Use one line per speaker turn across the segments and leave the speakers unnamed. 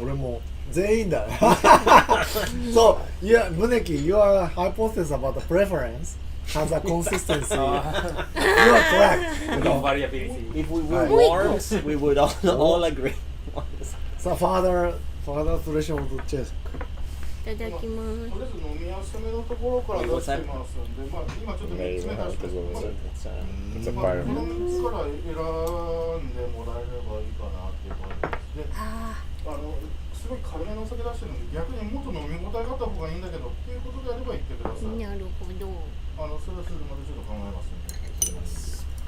俺も全員だ そう、yeah, Muneki, your hypothesis about the preference has a consistency. you are correct. you
No
know.
variability.
If we
Hi.
were worms, we would all, all agree. on this.
So further, further threshold check.
いただきます
とりあえず飲みやすめのところから出してますんで、まあ、今ちょっと3つ目出してます
It's, uh,
It's a
まあ、こ
fire.
の3つから選んでもらえればいいかなっていう感じです。で、
あ
あの、すごい軽めのお酒出してるんで、逆にもっと飲み応えがあった方がいいんだけどっていうことであれば言ってくださ
ー
い。
なるほど
あの、それはそれでまたちょっと考えますんで。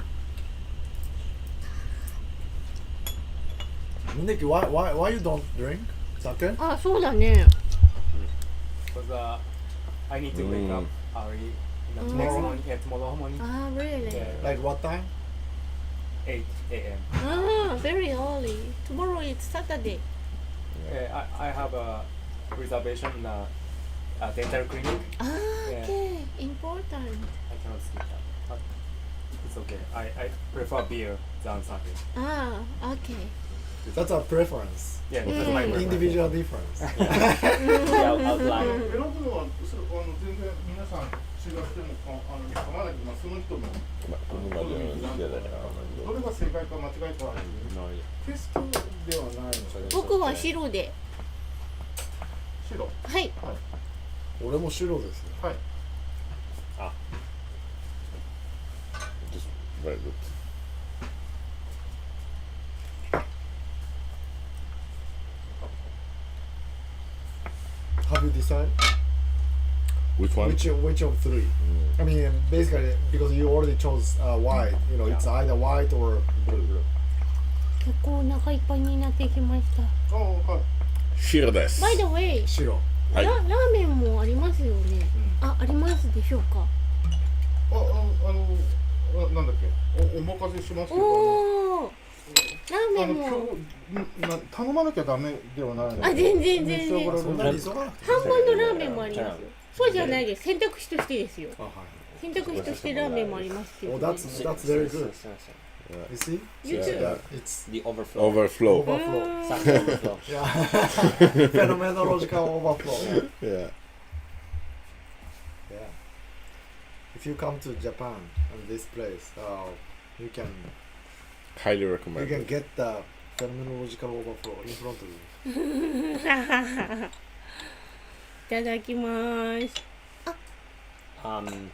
Muneki, why, why, why you don't drink? Sake?
あそうだね
Because uh, I need to wake up
Mm.
early. You know,
Mm. Oh,
Next morning, yeah, tomorrow morning,
あー really
yeah,
Like what time?
8 a.m.
あー very early tomorrow is Saturday
Yeah, I, I have a reservation in a, a dental clinic.
あー okay important
I cannot skip that. But it's okay. I, I prefer beer than sake.
ああ okay
That's a preference.
Yeah, that's my
Mm.
preference.
Individual difference.
yeah, outline.
選ぶのは、それあの全然皆さん違ってもかあの構わないけど、まあ、その人の
Ma-
"Oh
Come
ma non
on,
gliela
ど
diamo.
れが正解か間違いかは
No, io-
テストではないので、
僕は白で
白。
はい
俺も白ですよ。
はい。
just very good.
Have you decided?
Which one?
Which, which of three?
Mm.
I mean, basically, because you already chose uh, white, you know, it's either white or blue.
結構お腹いっぱいになってきました
ああ、はい。
Shiro desu.
By the way
白。
はい
ララーメンもありますよね、あありますでしょうか
あ、ああの、あなんだっけ、お、お任せしますけど。
おおラ
あ
ーメン
の
も
今日な頼まなきゃダメではないので。
あ全然全然
召し上がられる
そんなに急がなくて
半分のラーメンもありますよそうじゃないです選択肢としてですよ
も。
選択肢としてラーメンもありますけど、
Oh,
ね、
that's that's very good. You see?
YouTube
It's
The overflow.
Overflow.
overflow.
Sake overflow.
Yeah. Phenomenological overflow.
Yeah.
Yeah. If you come to Japan and this place, uh, you can
Highly
you can
recommended.
get the phenomenological overflow in front of you.
いただきます。
Um,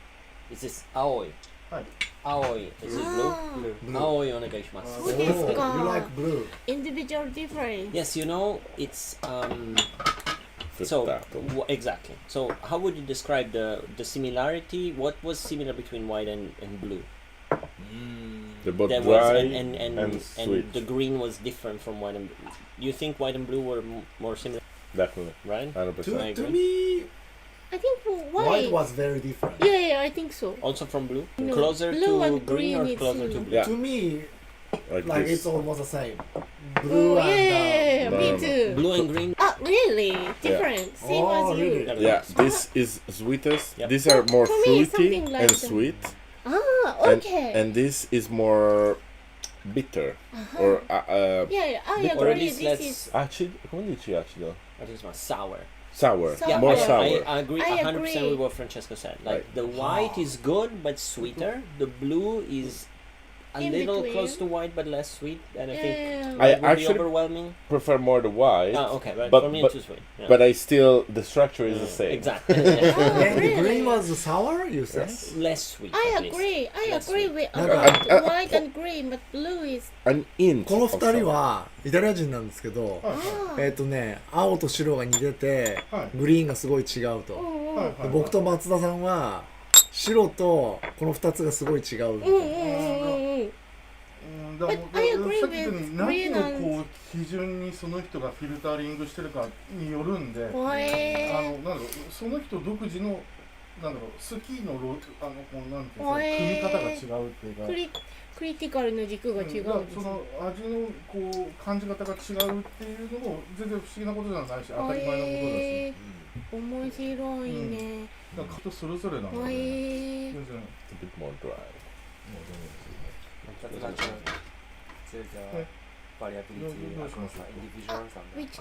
is this aoi?
Hi.
Aoi. Is it blue?
Blue.
Aoi onegaishimasu.
そうです
Oh, you
か
like。blue?
individual difference。
Yes, you know, it's um so
Frittato.
w- exactly. So how would you describe the the similarity? What was similar between white and, and blue?
They're both
There was
dry
and and, and,
and sweet.
the green was different from white and blue. You think white and blue were m- more similar,
Definitely.
right?
100%.
I
To, to
agree.
me,
I think for
white
why?
was very different.
Yeah, yeah, I think so.
Also from blue,
No,
closer
blue
to
and
green
green
or
is
closer to
similar.
blue.
Yeah.
To me,
Like,
like
this.
it's almost the same. Blue
Oh, yeah,
and uh,
uh,
me too.
Blue and green.
Ah, really? Different. Same
Oh,
as
really?
you.
Yeah, this is sweetest.
Yeah.
These are more
For me,
fruity
it's something like
and
the-
sweet,
Ah,
and,
okay.
and this is more bitter or uh, uh,
Uh-huh. yeah, yeah, I
Or at
Or at
agree.
least
This
let's.
is.
acid. Come on, dici acido.
What is my sour?
Sour.
Sour.
More
I,
sour.
I, I agree
I
100%
agree.
with what Francesco said. Like
Right.
the white is good but sweeter. The blue is a
In
little
between. Eh,
close to white but less sweet. And I think
Yeah.
I
it would be
actually-
overwhelming.
prefer more the white,
Ah, okay, but,
but-
for me
but-
it's too sweet. Yeah.
but I still the structure is
Yeah,
the same.
Exactly. yeah.
Ah,
and the green
really?
was sour. You said.
Yes.
less sweet.
I
at least.
agree. I
Let's
agree
see.
with
No,
about
but-
white and green, but blue is.
An int.
この
of
二
sour.
人はイタリア人なんですけど、
Ah.
えっ、とね青と白が似てて、
はい
グリーンがすごい違うと、
うんうん
はい
で僕と松田さんは白とこの二つがすごい違うみたい
うん
な、
うんうんうん。
うんだ
But
だ
I agree
さっき言ったよう
with
に何
green
のこう基準にその人がフィルタリングしてるかによるんで、あ
怖
の
え
なんだろうその人独自のなんだろうスキーのロあのこうなんていう
ほ
の組み
え
方が違うっていうか
ー。ク。リクリティカルの軸が違うんです
だから
ね
その味のこう感じ方が違うっていうのも全然不思議なことじゃないし当たり前のことだし
へー面白いね。
だから人それぞれなの
へ
で、
え
全然
It's a bit more dry.
That's like a, there's a variability
No, no, no,
across
no.
the individuals and
Which